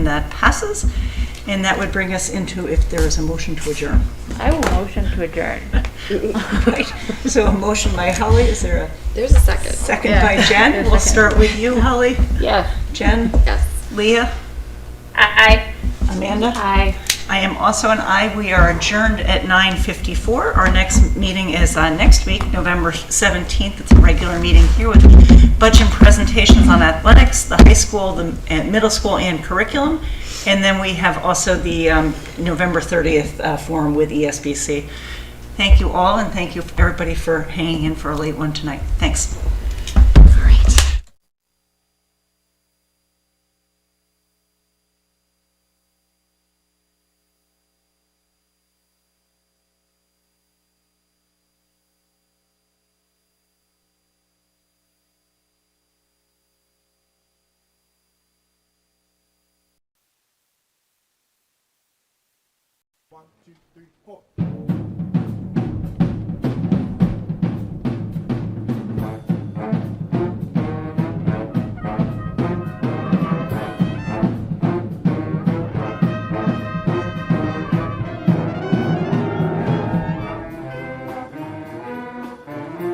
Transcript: That passes, and that would bring us into if there is a motion to adjourn. I will motion to adjourn. Right. So a motion by Holly, is there There's a a second. second Yeah. by Jen? We'll start with you, Holly. Yes. Jen, Yes. Leah, Aye. Amanda? Aye. I am also an aye. We are adjourned at 9:54. Our next meeting is uh, next week, November 17th. It's a regular meeting here with budget presentations on athletics, the high school, the and middle school, and curriculum. And then we have also the um, November 30th uh, forum with ESBC. Thank you all, and thank you, everybody, for hanging in for a late one tonight. Thanks. One, two, three, four.